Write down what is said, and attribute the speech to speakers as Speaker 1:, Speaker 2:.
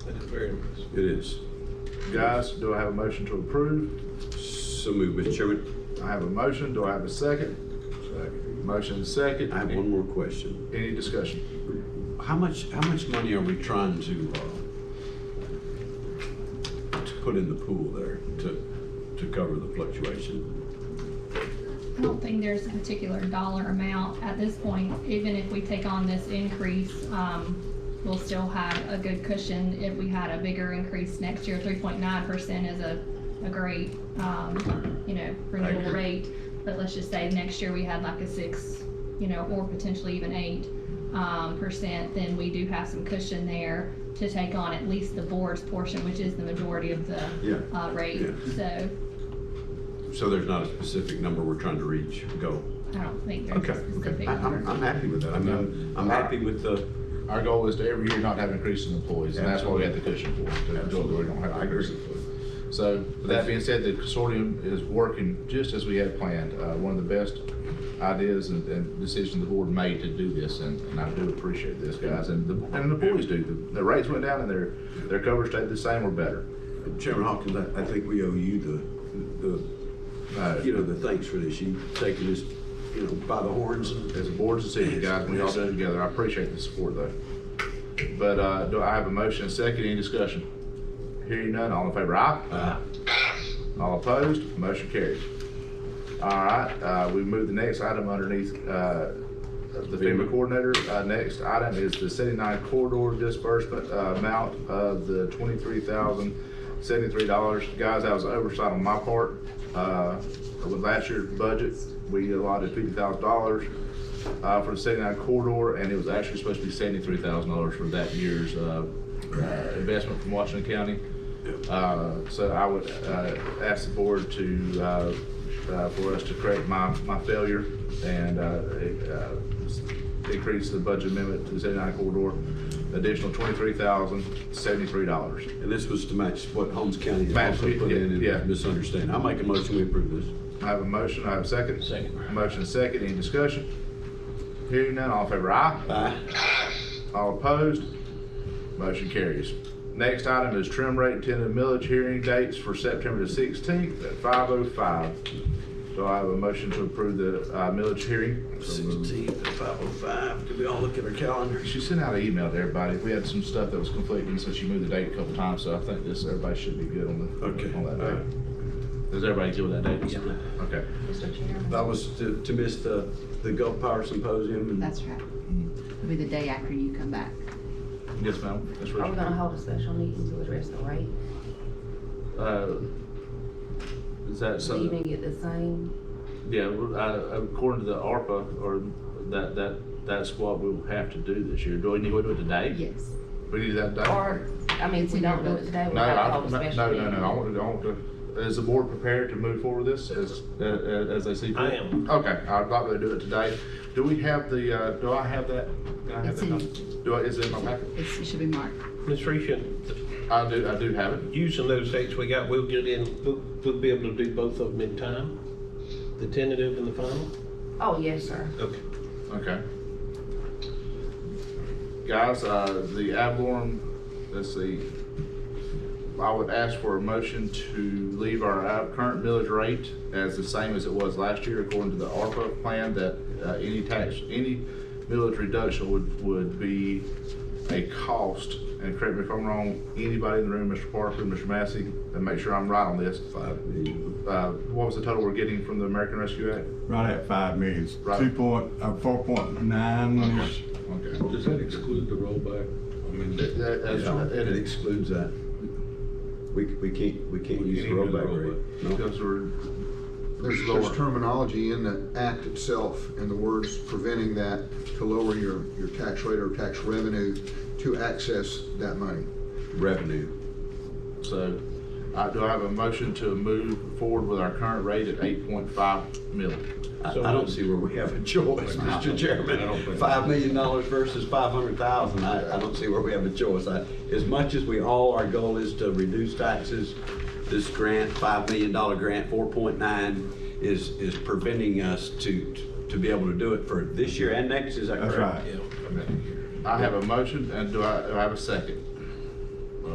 Speaker 1: That is very impressive.
Speaker 2: It is.
Speaker 3: Guys, do I have a motion to approve?
Speaker 2: So moved, Mr. Chairman.
Speaker 3: I have a motion. Do I have a second? Motion and
Speaker 2: I
Speaker 3: second.
Speaker 2: have one more question.
Speaker 3: Any discussion?
Speaker 2: How much, how much money are we trying to, uh, to put in the pool there to, to cover the fluctuation?
Speaker 4: I don't think there's a particular dollar amount at this point. Even if we take on this increase, um, we'll still have a good cushion if we had a bigger increase next year. Three point nine percent is a, a great, um, you know, renewal
Speaker 2: agree.
Speaker 4: rate. But let's just say next year we had like a six, you know, or potentially even eight, um, percent, then we do have some cushion there to take on at least the board's portion, which is the majority of the,
Speaker 2: Yeah.
Speaker 4: uh, rate.
Speaker 2: Yeah.
Speaker 4: So
Speaker 2: So there's not a specific number we're trying to reach, go.
Speaker 4: I don't think there's
Speaker 2: Okay,
Speaker 4: a
Speaker 2: okay.
Speaker 4: specific
Speaker 2: I-
Speaker 4: number.
Speaker 2: I'm, I'm happy with that. I mean, I'm- I'm happy with uh, the,
Speaker 3: Our goal is to every year not have increase in employees, and that's what we have the cushion for, to ensure that we don't have
Speaker 2: Absolutely. I agree.
Speaker 3: increase in employees. So, with that being said, the consortium is working just as we had planned. Uh, one of the best ideas and, and decisions the board made to do this, and, and I do appreciate this, guys, and the, and the employees do. The- The rates went down and their, their cover stayed the same or better.
Speaker 2: Chairman Hawkins, I, I think we owe you the, the, uh, you know, the thanks for this. You taking this, you know, by the horns and
Speaker 3: As a board decision, guys, we all do it together. I appreciate the support though. But, uh, do I have a motion and second? Any discussion? Hearing none, all in favor, aye?
Speaker 2: Aye.
Speaker 3: All opposed, motion carries. All right, uh, we move the next item underneath, uh, the FEMA coordinator. Uh, next item is the seventy-nine corridor disbursement, uh, amount of the twenty-three thousand seventy-three dollars. Guys, that was oversight on my part. Uh, with last year's budget, we allotted fifty thousand dollars, uh, for the seventy-nine corridor, and it was actually supposed to be seventy-three thousand dollars for that year's, uh, uh, investment from Washington County. Uh, So I would uh, ask the board to, uh, uh, for us to correct my, my failure and uh, uh, increase the budget amendment to the 79 corridor, additional $23,073.
Speaker 2: And this was to match what Holmes County had
Speaker 3: Match,
Speaker 2: also put
Speaker 3: yeah,
Speaker 2: in
Speaker 3: yeah.
Speaker 2: and misunderstanding. I make a motion, we approve this.
Speaker 3: I have a motion, I have a second.
Speaker 1: Second.
Speaker 3: Motion and second, any discussion? Hearing none, all in favor, aye.
Speaker 2: Aye.
Speaker 3: All opposed? Motion carries. Next item is trim rate and tentative millage hearing dates for September the sixteenth at five oh five. Do I have a motion to approve the uh, millage hearing?
Speaker 2: Sixteenth at five oh five. Did we all look at our calendars?
Speaker 3: She sent out an email to everybody. We had some stuff that was conflicting, so she moved the date a couple times, so I think this, everybody should be good on the,
Speaker 2: Okay.
Speaker 3: on that date. Is everybody good with that date?
Speaker 2: Yeah.
Speaker 3: Okay.
Speaker 5: Mr. Chairman.
Speaker 2: That was to, to miss the, the Gulf Power Symposium and.
Speaker 5: That's right. It'll be the day after you come back.
Speaker 3: Mm. Yes, ma'am. That's
Speaker 6: Are we gonna
Speaker 3: right.
Speaker 6: hold a special meeting to address the rate?
Speaker 3: Uh, Is that
Speaker 6: So
Speaker 3: something?
Speaker 6: you can get the same,
Speaker 3: Yeah, well, I- according to the ARPA, or that, that, that's what we'll have to do this year. Do we need to do it today?
Speaker 5: Yes.
Speaker 3: We need that done.
Speaker 6: or, I mean, if we don't do it today, we
Speaker 3: Uh, No,
Speaker 6: gotta
Speaker 3: I, no,
Speaker 6: hold a special
Speaker 3: no,
Speaker 6: meeting.
Speaker 3: no, I want to, I want to, is the board prepared to move forward with this as, uh, uh, as they see fit?
Speaker 1: I am.
Speaker 3: Okay, I'd like to do it today. Do we have the, uh, do I have that? Can I have
Speaker 5: It's
Speaker 3: that
Speaker 5: in-
Speaker 3: number? Do I, is it in my packet?
Speaker 5: It's, it should be marked.
Speaker 1: Ms. Risha,
Speaker 3: I do, I do have it.
Speaker 1: using those dates we got, we'll get in, we'll, we'll be able to do both of them in time, the tentative and the final?
Speaker 6: Oh, yes, sir.
Speaker 1: Okay.
Speaker 3: Okay. Guys, uh, the ad valorem, let's see, I would ask for a motion to leave our ad- current millage rate as the same as it was last year according to the ARPA plan, that, uh, any tax, any millage reduction would, would be a cost, and correct me if I'm wrong, anybody in the room, Mr. Parker, Mr. Massey, and make sure I'm right on this,
Speaker 2: Five million.
Speaker 3: uh, what was the total we're getting from the American Rescue Act?
Speaker 7: Right at five million,
Speaker 3: Right.
Speaker 7: two point, uh, four point nine-ish.
Speaker 3: Okay.
Speaker 8: Does that exclude the rollback? I mean,
Speaker 3: That-
Speaker 8: that-
Speaker 3: that- that's-
Speaker 2: Yeah,
Speaker 3: that
Speaker 2: It
Speaker 3: is-
Speaker 2: excludes that. We, we can't, we can't
Speaker 8: We
Speaker 2: use the
Speaker 8: can't do the
Speaker 2: rollback rate. No.
Speaker 3: Because we're,
Speaker 9: There's,
Speaker 3: it's
Speaker 9: there's
Speaker 3: lower.
Speaker 9: terminology in the act itself and the words preventing that to lower your, your tax rate or tax revenue to access that money.
Speaker 2: Revenue.
Speaker 3: so, I, do I have a motion to move forward with our current rate at eight point five million?
Speaker 2: I,
Speaker 1: So-
Speaker 2: I don't see where we have a choice, Mr.
Speaker 8: I don't
Speaker 2: Chairman.
Speaker 8: think-
Speaker 2: Five million dollars versus five hundred thousand, I, I don't see where we have a choice. I, as much as we all, our goal is to reduce taxes, this grant, five million dollar grant, four point nine, is, is preventing us to, to be able to do it for this year and next, is that
Speaker 7: That's
Speaker 2: correct?
Speaker 7: right.
Speaker 3: I have a motion, and do I, do I have a second?